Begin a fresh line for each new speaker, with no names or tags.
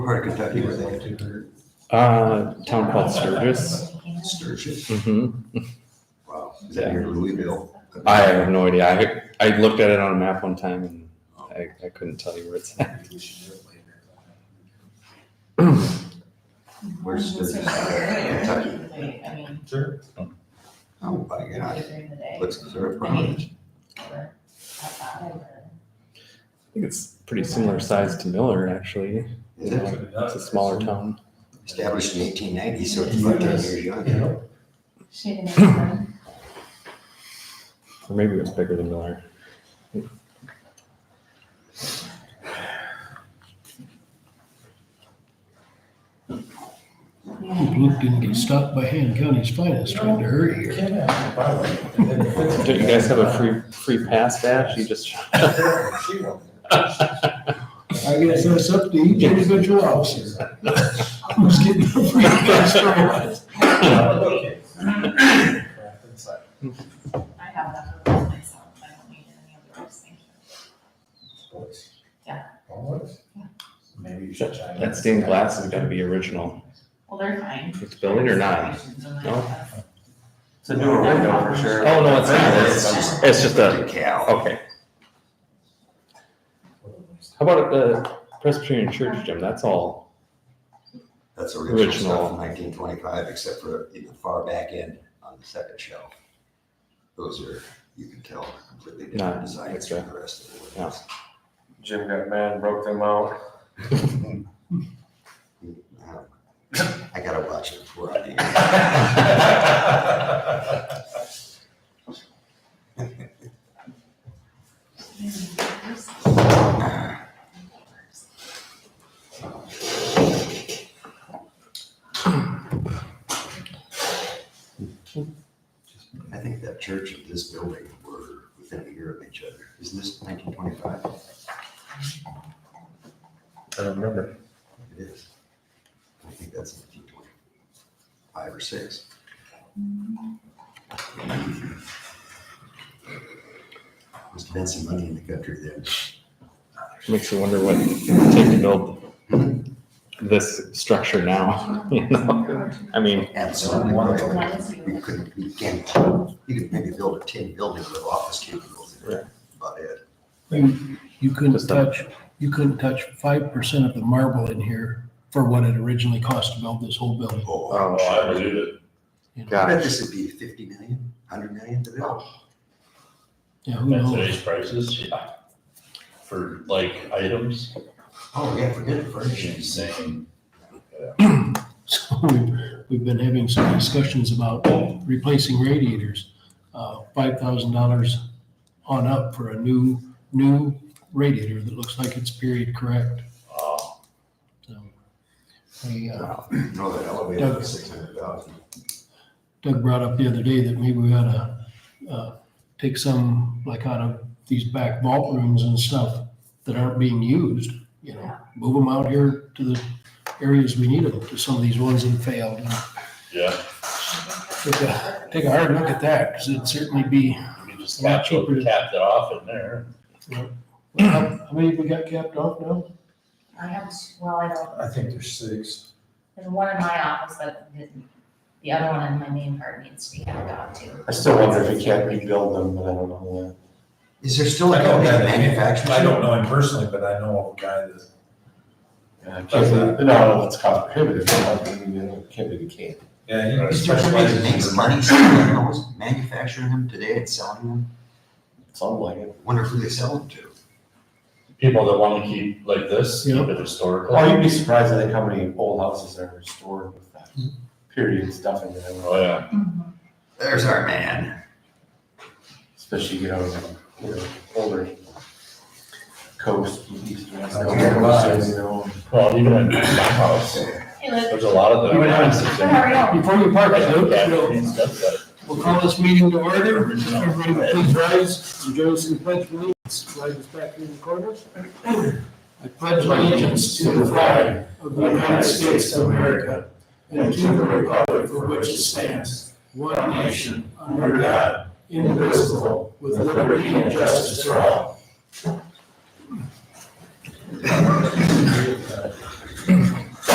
part of Kentucky where they do
Uh, town called Sturgis.
Sturgis.
hmm
Wow. Is that near Louisville?
I have no idea. I I looked at it on a map one time and I, I couldn't tell you where it's at.
Where's Sturgis? Kentucky. Oh, my God. Let's serve Providence.
I think it's pretty similar size to Miller, actually.
Is it
It's a smaller town.
established in eighteen ninety, so it's about ten years young.
Or maybe it was bigger than Miller.
Looked get stopped by Han County's finest, trying to hurry here.
Don't you guys have a free free pass badge? You just
I guess that's up to each individual officer. Who's getting the free pass for what?
I have enough of those myself, I don't need any other ones, thank you.
Maybe you should try.
that stained glass has got to be original.
Well, they're fine.
It's building or not? No?
No?
It's a newer window for sure.
Oh, no, it's not. It's just- it's just a-
Cal.
Okay. How about at the Presbyterian Church, Jim? That's all.
That's original
Original.
stuff from nineteen twenty-five, except for in the far back end on the second shelf. Those are, you can tell, completely
No,
different designs
extra.
from the rest of the windows.
Jim got mad, and broke them out.
Um, I gotta watch it before I do. I think that church and this building were within a year of each other. Isn't this nineteen twenty-five?
I don't remember.
It is. I think that's nineteen twenty-five or six. Must have been some money in the country then.
Makes you wonder what it take to build this structure now. You know? I mean,
Absolutely. You couldn't, you can't, you could maybe build a tin building with office cubicles in it, about it.
You couldn't
Just a-
touch, you couldn't touch five percent of the marble in here for what it originally cost to build this whole building.
Oh,
oh,
I believe it.
I
you know.
bet
gosh.
this would be fifty million, hundred million to build.
Yeah, who
At
knows?
today's prices, yeah. For like items,
Oh, yeah, forget it, furnishings.
insane.
So we've, we've been having some discussions about replacing radiators. Uh, five thousand dollars on up for a new, new radiator that looks like it's period correct.
Wow.
So We, uh,
Wow. No, that elevator was six hundred thousand.
Doug brought up the other day that maybe we ought to uh, take some, like out of these back vault rooms and stuff that aren't being used, you know, move them out here to the areas we need them, to some of these ones that failed. and
Yeah.
Take a, take a hard look at that, because it'd certainly be,
I mean, just
A lot
capped,
cheaper to-
capped it off in there.
how how many have we got capped off now?
I have, well, I don't,
I think there's six.
there's one in my office, but the, the other one in my main part needs to be added on to.
I still wonder if we can't rebuild them, but I don't know
Is there still a
I don't
company that
have any-
manufactures?
I don't
it?
know him personally, but I know of a guy that's,
that. No, no, it's cost prohibitive, I don't think we can't do the can.
yeah, he
Is there somebody that makes
specializes in.
money selling those, manufacturing them today and selling them?
Sounds like it.
Wonder who they sell them to?
People that wanna keep like this, keep
Yeah.
it historical.
Oh, you'd be surprised, I think, how many old houses are restored with that period stuff in there,
Oh, yeah.
Mhm.
There's our man.
especially, you know, you know, older coast, east, west.
That's where it lies.
you know.
Well, even at my house,
Hey, Liz,
there's a lot of them.
Even having six.
how are you?
Before you park it, Luke,
Yeah,
we'll-
he's got that.
we'll call this meeting to order. Everybody please rise, and join us in the pledge of allegiance. Slide this back in the corner. I pledge allegiance to the flag of the United States of America and to the republic for which it stands, one nation, under God, indivisible, with liberty and justice for all.